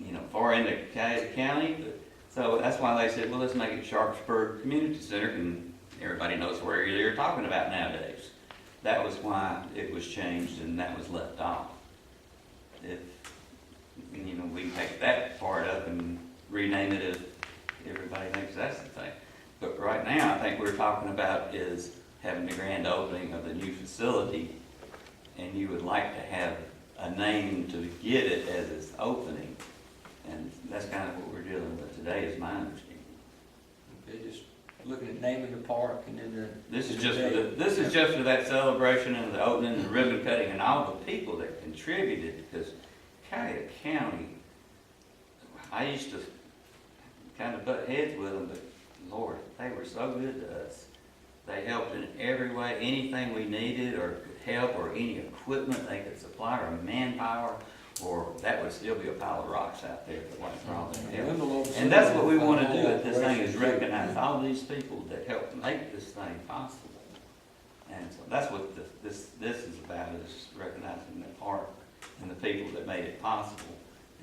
in the ca- county. but- So that's why they said, well, let's make it Sharpsburg Community Center, and everybody knows where you're talking about nowadays. That was why it was changed and that was left off. If, you know, we take that part up and rename it if everybody thinks that's the thing. But right now, I think we're talking about is having the grand opening of the new facility and you would like to have a name to get it as it's opening. And that's kind of what we're dealing with today, is my understanding. Okay, just looking at naming the park and then the. This is just for the, this is just for that celebration and the opening, the ribbon cutting, and all the people that contributed, because Cuyahoga County, I used to kind of butt heads with them, but Lord, they were so good to us. They helped in every way, anything we needed or could help, or any equipment they could supply, or manpower, or that would still be a pile of rocks out there if it wasn't for all their help. And that's what we want to do at this thing, is recognize all these people that helped make this thing possible. And so that's what this- this, this is about, is recognizing the park and the people that made it possible.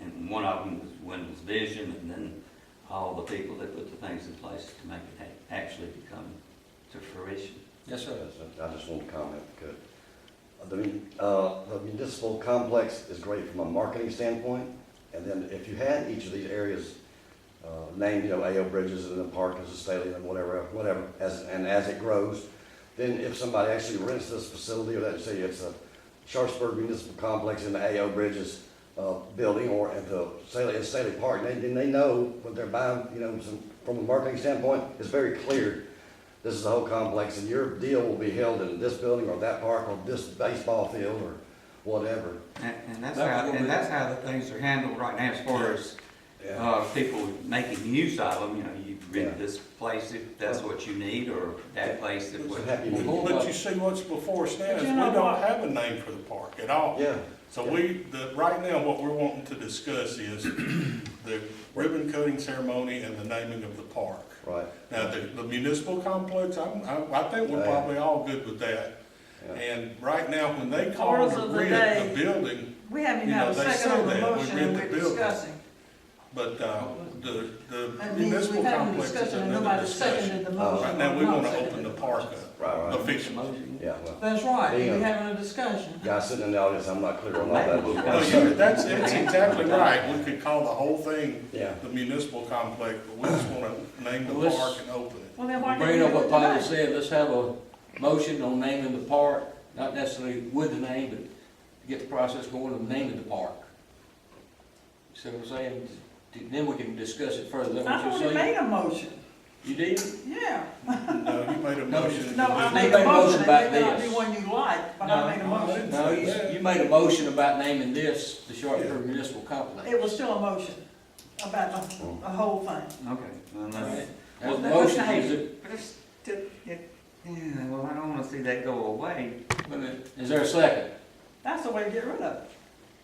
And one of them was Wendell's vision, and then all the people that put the things in place to make it ha- actually become to fruition. Yes, sir. I just want to comment, because the, mun- uh, the municipal complex is great from a marketing standpoint, and then if you had each of these areas uh, named, you know, AO Bridges and the park as a stadium and whatever, whatever, as, and as it grows, then if somebody actually rents this facility, or let's say it's a Sharpsburg Municipal Complex in the AO Bridges uh, building, or at the Staley, at Staley Park, then then they know what they're buying, you know, some- from a marketing standpoint, it's very clear this is the whole complex, and your deal will be held in this building or that park or this baseball field or whatever. And, and that's That's how, what we- and that's how the things are handled right now as far as, Yeah. uh, people making use of them, you know, you Yeah. rent this place if that's what you need, or that place if It's what. a happy meeting. But you see what's before us now But is we you know don't what? have a name for the park at all. Yeah, So we, the, right now, what we're wanting to discuss is the ribbon cutting ceremony and the naming of the park. right. Now, the, the municipal complex, I'm, I, I think we're Yeah. probably all good with that. Yeah. And right now, when they call Orders to of the rent day. the building, We haven't You had know, a they second on say the that, we motion rent and the we're building. discussing. but, uh, the, the That means municipal we've had a complex is discussion and another nobody discussion. seconded the Uh, motion. Right now, we or not wanna seconded open the park up, Right, right. officially. Yeah, well, That's right, Yeah. we're having a discussion. guys sitting in the audience, I'm not clear on all that. No, you, that's, that's exactly right, we could call the whole thing Yeah. the municipal complex, but we just wanna name the Well, let's- park and open it. Well, then why didn't Bringing you up do it what Bobby tonight? said, let's have a motion on naming the park, not necessarily with the name, but to get the process going of naming the park. See what I'm saying? Then we can discuss it further. Is that I what already you're saying? made a motion, You did? yeah. No, you made a No, motion. to No, I do made made a a motion motion, about it may not be this. one you like, but No. I made a No, I motion. didn't. No, you, you made a motion about naming this the Sharpsburg Municipal Complex. It was still a motion about the, the whole thing. Okay, well, that's, Right? That Well, motion okay. is, it- But it's, it, it, yeah, well, I don't wanna see that go away. wait a minute, is there a second? That's the way to get rid of it,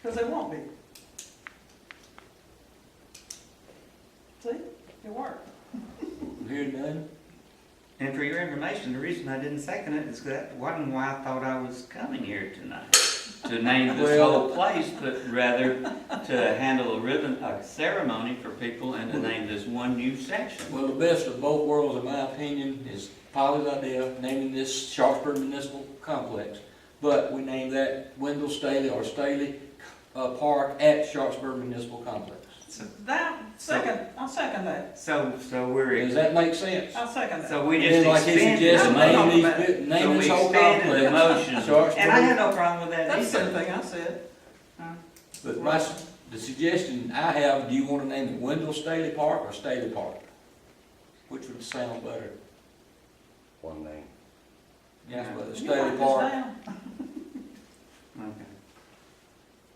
because it won't be. See, it worked. Hearing none? And for your information, the reason I didn't second it is that wasn't why I thought I was coming here tonight. To name this whole Well- place, but rather to handle a ribbon, a ceremony for people and to name this one new section. Well, the best of both worlds, in my opinion, is Polly's idea, naming this Sharpsburg Municipal Complex. But we name that Wendell Staley or Staley uh, Park at Sharpsburg Municipal Complex. So That, second, I second that, So, so we're, Does that make sense? I second that. so we And just like he expanded. suggested, the name motion. these bit- name So we this whole expanded the complex. motion. Sharpsburg- And I had no problem with that That's the same either. thing I said. But my, s- the suggestion I have, do you want to name it Wendell Staley Park or Staley Park? Which would sound better? One name. Yes, but You write Staley this Park. down. Okay.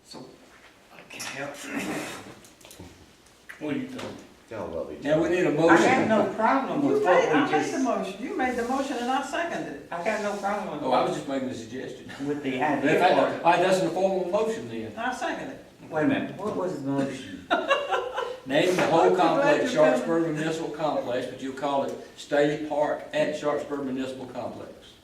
So, I can't help. it. What do you think? Y'all love each Now, other. we need a I have motion. no problem You with made, what we I made the just, motion, you made the motion and I seconded it. I got no problem with Oh, I was just making a suggestion. with the In fact, idea I- part. I- that's a formal motion then. I seconded it. Wait a minute, what was the motion? Name the I'm whole so glad complex you're coming. Sharpsburg Municipal Complex, but you'll call it Staley Park at Sharpsburg Municipal Complex.